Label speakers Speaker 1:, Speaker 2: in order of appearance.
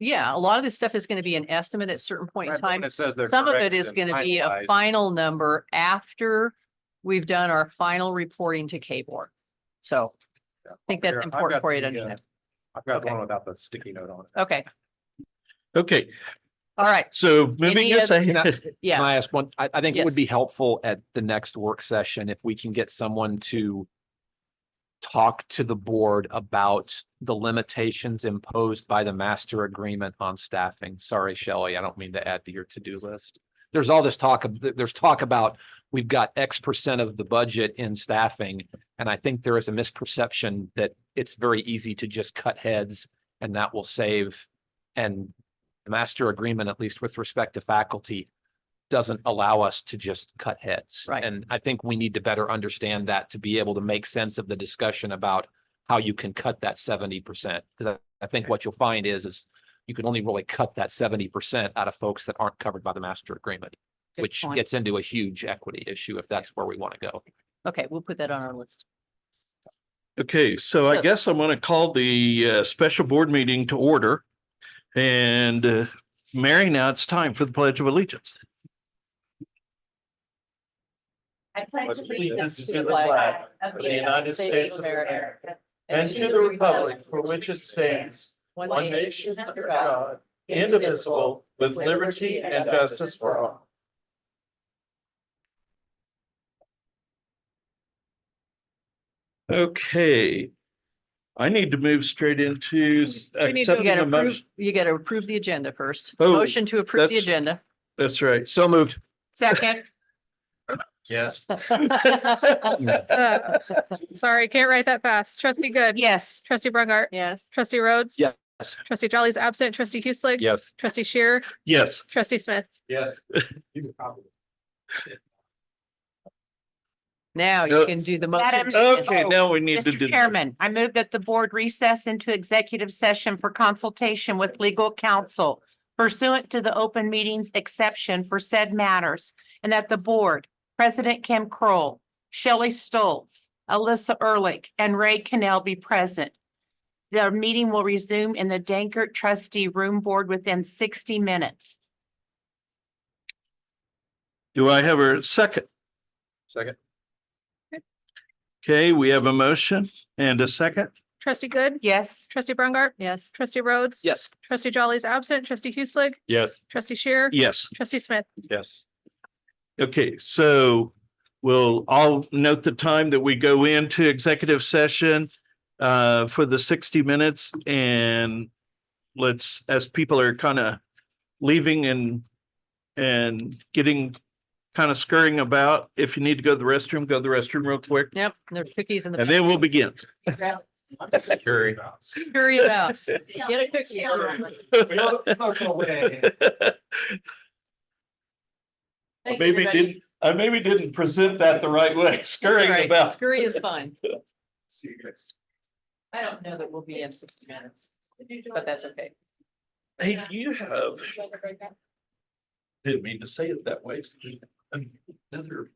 Speaker 1: yeah, a lot of this stuff is going to be an estimate at a certain point in
Speaker 2: Right, but when
Speaker 1: time.
Speaker 2: It says they're.
Speaker 1: Some of it
Speaker 2: corrected
Speaker 1: is
Speaker 2: and
Speaker 1: going to be a
Speaker 2: finalized,
Speaker 1: final number after we've done our final reporting to K board. So
Speaker 2: yeah.
Speaker 1: I think
Speaker 2: Here,
Speaker 1: that's
Speaker 2: I've got
Speaker 1: important for you
Speaker 2: the,
Speaker 1: to
Speaker 2: uh,
Speaker 1: understand.
Speaker 2: I've got the
Speaker 1: Okay.
Speaker 2: one without the sticky note on it.
Speaker 1: Okay,
Speaker 3: Okay,
Speaker 1: all right,
Speaker 3: so
Speaker 1: Any
Speaker 3: moving us
Speaker 1: other-
Speaker 3: ahead.
Speaker 1: yeah.
Speaker 4: Can I ask one? I, I think it
Speaker 1: Yes.
Speaker 4: would be helpful at the next work session if we can get someone to talk to the board about the limitations imposed by the master agreement on staffing. Sorry, Shelley, I don't mean to add to your to-do list. There's all this talk, of there's talk about, we've got X percent of the budget in staffing. And I think there is a misperception that it's very easy to just cut heads and that will save. And the master agreement, at least with respect to faculty, doesn't allow us to just cut heads.
Speaker 1: Right.
Speaker 4: And I think we need to better understand that to be able to make sense of the discussion about how you can cut that seventy percent. Because I, I think what you'll find is, is you can only really cut that seventy percent out of folks that aren't covered by the master agreement,
Speaker 1: Good
Speaker 4: which
Speaker 1: point.
Speaker 4: gets into a huge equity issue if that's where we want to go.
Speaker 1: okay, we'll put that on our list.
Speaker 3: Okay, so I
Speaker 1: Good.
Speaker 3: guess I'm going to call the uh, special board meeting to order. And uh, Mary, now it's time for the Pledge of Allegiance.
Speaker 5: I pledge
Speaker 1: Pledge
Speaker 5: allegiance
Speaker 1: allegiance
Speaker 5: to
Speaker 1: to
Speaker 5: the
Speaker 1: the flag
Speaker 5: flag of the United States of America and to the republic for which it stands, one nation under God, indivisible, with liberty and justice for all.
Speaker 3: Okay. I need to move straight into s-
Speaker 1: You
Speaker 3: accepting
Speaker 1: gotta
Speaker 3: a
Speaker 1: approve,
Speaker 3: motion.
Speaker 1: you gotta approve the agenda first.
Speaker 3: Oh,
Speaker 1: Motion to approve the
Speaker 3: that's-
Speaker 1: agenda.
Speaker 3: That's right.
Speaker 4: So moved.
Speaker 6: Second,
Speaker 2: Yes.
Speaker 6: sorry, can't write that fast. Trustee Good.
Speaker 1: Yes.
Speaker 6: Trustee Brungart.
Speaker 1: Yes.
Speaker 6: Trustee Rhodes.
Speaker 4: Yes.
Speaker 6: Trustee Jolly's absent. Trustee Hueslick.
Speaker 4: Yes.
Speaker 6: Trustee Shear.
Speaker 3: Yes.
Speaker 6: Trustee Smith.
Speaker 2: Yes. You can probably-
Speaker 1: Now you
Speaker 3: No.
Speaker 1: can do the
Speaker 6: Madam-
Speaker 1: motion. to-
Speaker 3: Okay, now we need to do.
Speaker 5: Mr. Chairman, I move that the board recess into executive session for consultation with legal counsel pursuant to the open meetings exception for said matters, and that the board, President Kim Kroll, Shelley Stoltz, Alyssa Ehrlich, and Ray Cannell be present. The meeting will resume in the Dankert trustee room board within sixty minutes.
Speaker 3: Do I have a second?
Speaker 2: Second.
Speaker 3: Okay, we have a motion and a second.
Speaker 6: Trustee Good.
Speaker 5: Yes,
Speaker 6: Trustee Brungart.
Speaker 1: Yes.
Speaker 6: Trustee Rhodes.
Speaker 4: Yes.
Speaker 6: Trustee Jolly's absent. Trustee Hueslick.
Speaker 4: Yes.
Speaker 6: Trustee Shear.
Speaker 3: Yes.
Speaker 6: Trustee Smith.
Speaker 4: Yes.
Speaker 3: Okay, so we'll all note the time that we go into executive session uh, for the sixty minutes and let's, as people are kind of leaving and and getting kind of scurrying about, if you need to go to the restroom, go to the restroom real quick
Speaker 1: Yep, there's cookies in the.
Speaker 3: and then we'll begin.
Speaker 2: I'm just curious.
Speaker 1: Hurry about. Get a cookie. Thank you,
Speaker 3: Maybe
Speaker 1: everybody.
Speaker 3: didn't, I maybe didn't present that the right way,
Speaker 1: That's all
Speaker 3: scurrying
Speaker 1: right.
Speaker 3: about.
Speaker 1: Scurry is fine.
Speaker 2: See you guys.
Speaker 1: I don't know that we'll be in sixty minutes, but that's okay.
Speaker 3: Hey, do you have? Didn't mean to say it that way. Another